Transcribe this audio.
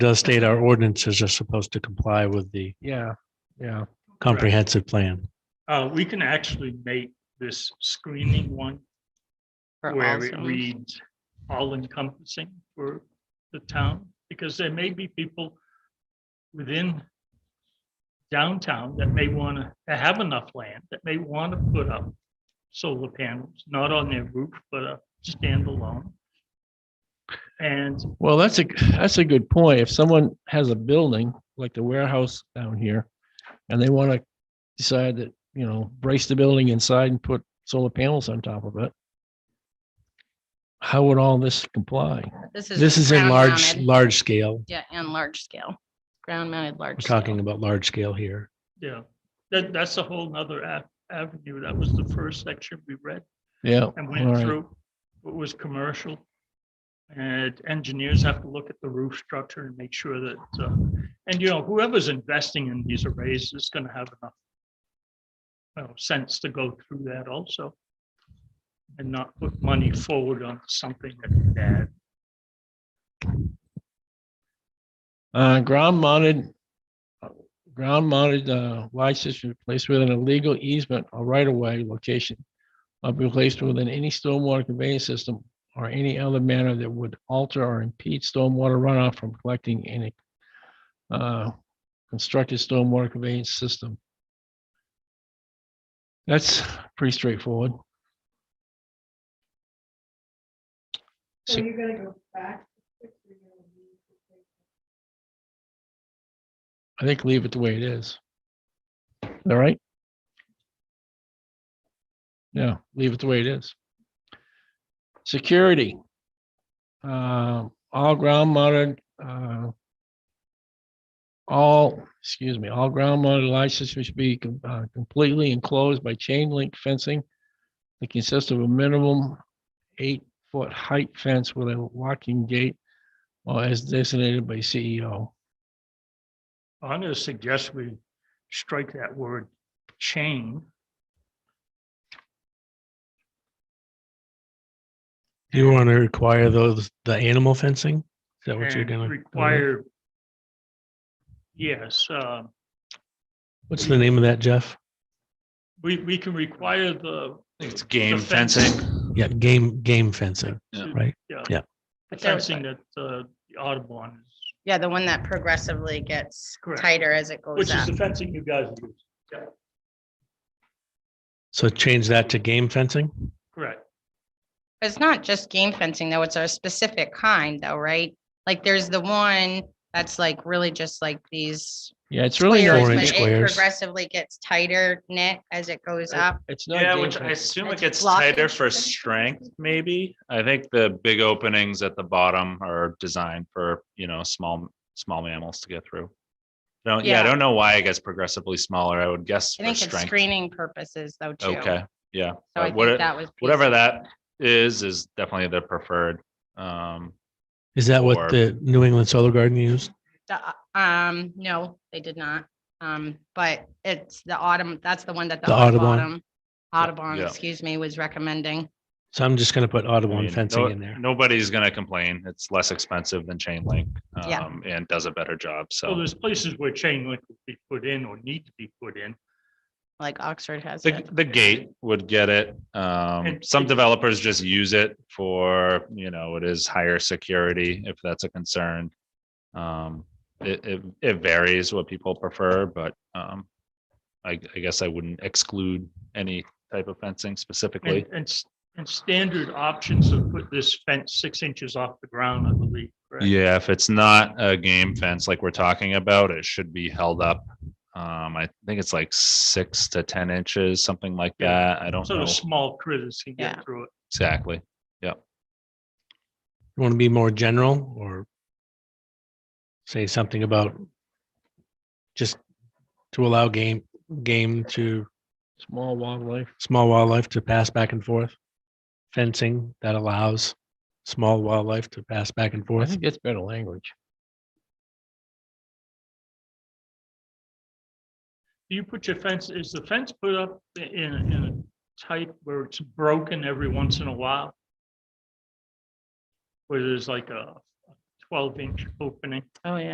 does state our ordinances are supposed to comply with the Yeah, yeah. comprehensive plan. Uh, we can actually make this screening one for all where it zones. reads all encompassing for the town, because there may be people within downtown that may want to have enough land, that may want to put up solar panels, not on their roof, but a standalone. And Well, that's a, that's a good point. If someone has a building like the warehouse down here and they want to decide that, you know, brace the building inside and put solar panels on top of it. How would all this comply? This is in ground large, mounted. large scale. Yeah, and large scale, ground mounted, We're large. talking scale. about large scale here. Yeah, that, that's a whole nother a- avenue. That was the first section we read Yeah. and all went right. through. It was commercial. And engineers have to look at the roof structure and make sure that, uh, and you know, whoever's investing in these arrays is gonna have enough you know, sense to go through that also. And not put money forward on something that's bad. Uh, ground mounted, ground mounted, uh, light system placed within a legal easement or right of way location. Or be placed within any stormwater conveyance system or any other manner that would alter or impede stormwater runoff from collecting in a Uh, constructed stormwater conveyance system. That's pretty straightforward. So you're gonna go back? to six, or you're gonna leave the six? I think leave it the way it is. All right? Yeah, leave it the way it is. Security. Uh, all ground mounted, uh, all, excuse me, all ground mounted light systems should be com- uh, completely enclosed by chain link fencing. It consists of a minimum eight foot height fence with a locking gate or as designated by E CEO. I'm gonna suggest we strike that word chain. Do you want to require those, the animal fencing? Is that what you're and gonna? Require. Yes, uh, What's the name of that, Jeff? we, we can require the. It's game the fencing. fencing. Yeah, game, game fencing. The But that- fencing that uh, the Audubon is, Yeah, the one that progressively gets Correct. tighter as it goes which is up. the fencing you guys use, So change that to game fencing? correct? It's not just game fencing though, it's a specific kind though, right? Like there's the one that's like really just like these. Yeah, it's really not. squares, Four-inch but it squares. Progressively gets tighter knit as it goes Uh, up. It's not. Yeah, game which I fencing. assume it It's gets blocking tighter for system. strength, maybe. I think the big openings at the bottom are designed for, you know, small, small mammals to get through. Don't, yeah, I Yeah. don't know why it gets progressively smaller. I would guess I for think it's strength. screening purposes though too. Okay, yeah. So I but what think it- that was. piece Whatever of it. that is, is definitely the preferred. Um, Is that Or- what the New England Solar Garden used? The, uh, Um, no, they did not. Um, but it's the autumn, that's the one that the The Audubon. Audubon, Audubon, yeah. excuse me, was recommending. So I'm just gonna put I Audubon mean, fencing no- in there. Nobody's gonna complain. It's less expensive than chain link. Yeah. um, And does a better job, So so. there's places where chain link would be put in or need to be put in. like Oxford has The, it. the gate would get it. Um, And- some developers just use it for, you know, it is higher security if that's a concern. Um, it, it, it varies what people prefer, but, um, I, I guess I wouldn't exclude any type of fencing And, specifically. and, s- and standard options to put this fence six inches off the ground, I believe. correct? Yeah, if it's not a game fence like we're talking about, it should be held up. Um, I think it's like six to ten inches, something like Yeah. that. I don't So know the small critters can Yeah. get through it. exactly. You want to be more general or say something about just to allow game, game to Small wildlife. small wildlife to pass back and forth? Fencing that allows small wildlife to pass back and I forth? think that's better language. Do you put your fence, is the fence put up i- in, a- in a type where it's broken every once in a while? Where there's like a twelve inch opening? Oh, yeah.